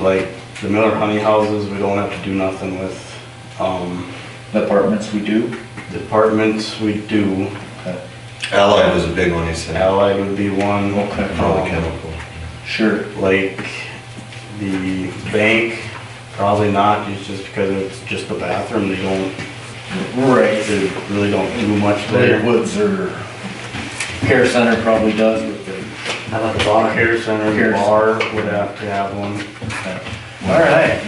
Like the Miller Honey Houses, we don't have to do nothing with. Um, The Apartments we do, uh, departments, we do. Allied was a big one, he said. Allied would be one. Okay. Probably Um, chemical. sure. like the bank, probably not, it's just because it's just the bathroom, they don't, Right. they really don't do much Red there. Woods or Care Center probably does with the. How about the bar? Care center, Care. the bar would have to have one. All right.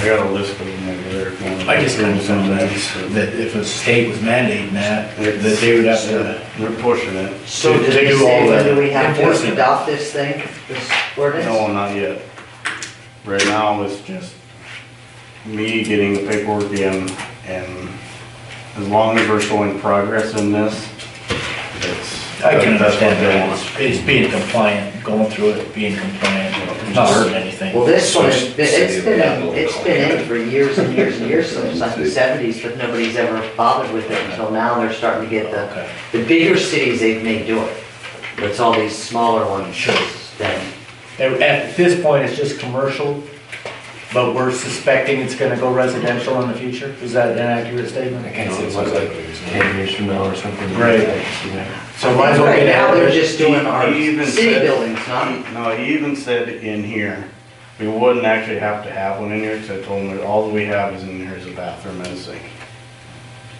I got a list of them over there. if you want. I just kind of found that, that if a state was mandating that, that they would have to, They're pushing it. They So did they do all say that whether we have enforcement. to adopt this thing, this ordinance? No, not yet. Right now, uh, it's just me getting the paperwork in, and as long as we're showing progress in this, it's. I can that's what understand they that, want. it's- it's being compliant, going through it, being compliant, it's not hurting anything. Well, this one, has been- City it's of been, Apple. in- it's been in for years and years and years, since like the seventies, but nobody's ever bothered with it until now, they're starting to get the, Okay. the bigger cities they may do it. But it's all these smaller ones Sure. then. At at this point, it's just commercial, but we're suspecting it's gonna go residential in the future? Is that an accurate statement? I can't see it was like ten years from now or something. Right. So might as well Right get now, out they're there. just doing our He even city said- buildings, not, No, he even said in here, we wouldn't actually have to have one in here, because I told him that all we have is in here is a bathroom and a sink.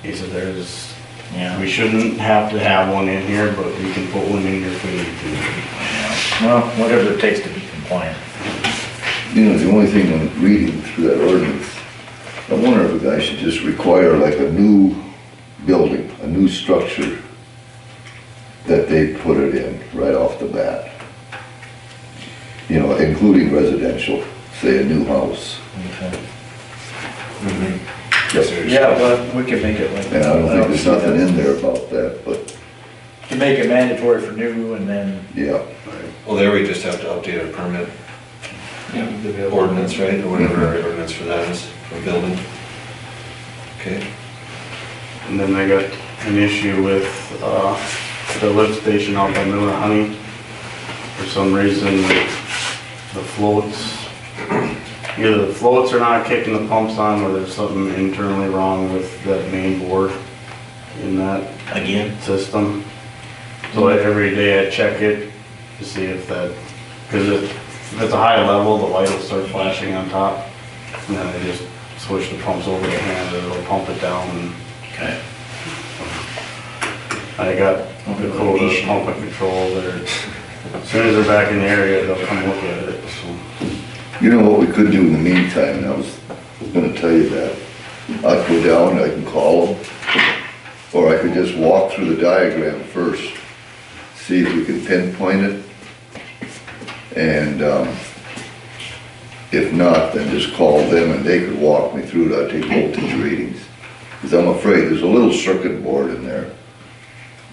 He said there's, Yeah, we shouldn't have to have one in here, but we can put one in here if we need to. well, whatever it takes to be compliant. You know, the only thing I'm reading through that ordinance, I wonder if a guy should just require like a new building, a new structure that they put it in right off the bat. You know, including residential, say a new house. Mm-hmm. Yeah, but we could make it like. And I don't think there's nothing in there about that, but To make it mandatory for new and then. yeah. Well, there we just have to update a permit ordinance, right, or whatever our ordinance for that is, for building. Okay, And then I got an issue with, uh, the lift station out by Miller Honey. For some reason, the floats, either the floats are not kicking the pumps on, or there's something internally wrong with that main board in that Again? system. So I- every day I check it to see if that, because if it's a high level, the light will start flashing on top. And then I just switch the pumps over to hand, and it'll pump it down. and Okay. I got the code of pump and control there. As soon as they're back in the area, they'll come look at it, so. You know what we could do in the meantime, and I was gonna tell you that. I could go down, I can call them, or I could just walk through the diagram first, see if we can pinpoint it. And, um, if not, then just call them and they could walk me through it, I'd take voltage readings. Cause I'm afraid, there's a little circuit board in there,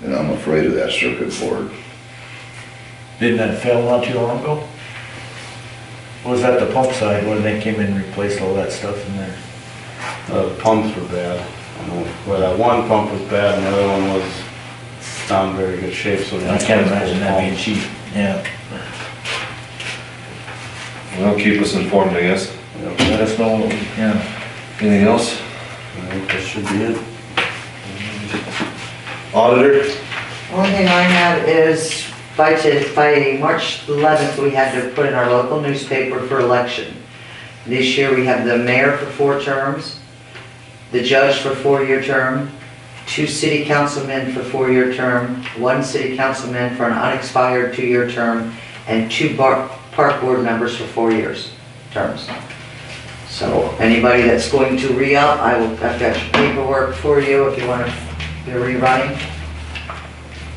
and I'm afraid of that circuit board. Didn't that fail not too long ago? Was that the pump side when they came in and replaced all that stuff in there? Uh, The pumps were bad. I know, Well, that one pump was bad and the other one was not in very good shape, so. I can't imagine that being cheap, yeah. well, keep us informed, I guess. Yep, Let us know, yeah. Anything else? I think that should be it. Auditor? Only thing I have is by, to- by March 11th, we had to put in our local newspaper for election. This year, we have the mayor for four terms, the judge for four-year term, two city councilmen for four-year term, one city councilman for an unexpired two-year term, and two bar- park board members for four years, terms. So anybody that's going to re-up, I will, I've got your paperwork for you if you want to, be rerunning.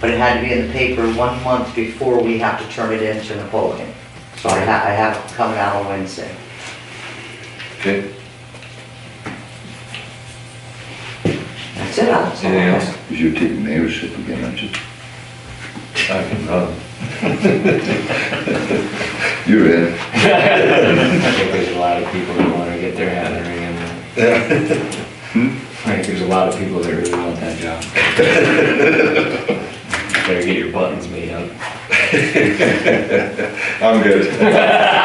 But it had to be in the paper one month before we have to turn it in to Napoleon. So I ha I have it coming out on Wednesday. Okay, That's it, Alex. anything else? Cause you're taking mayorship again, aren't you? I can, uh, You're in. I think there's a lot of people that wanna get their hat in the ring in that. I think there's a lot of people that really want that job. Better get your buttons made up. I'm good.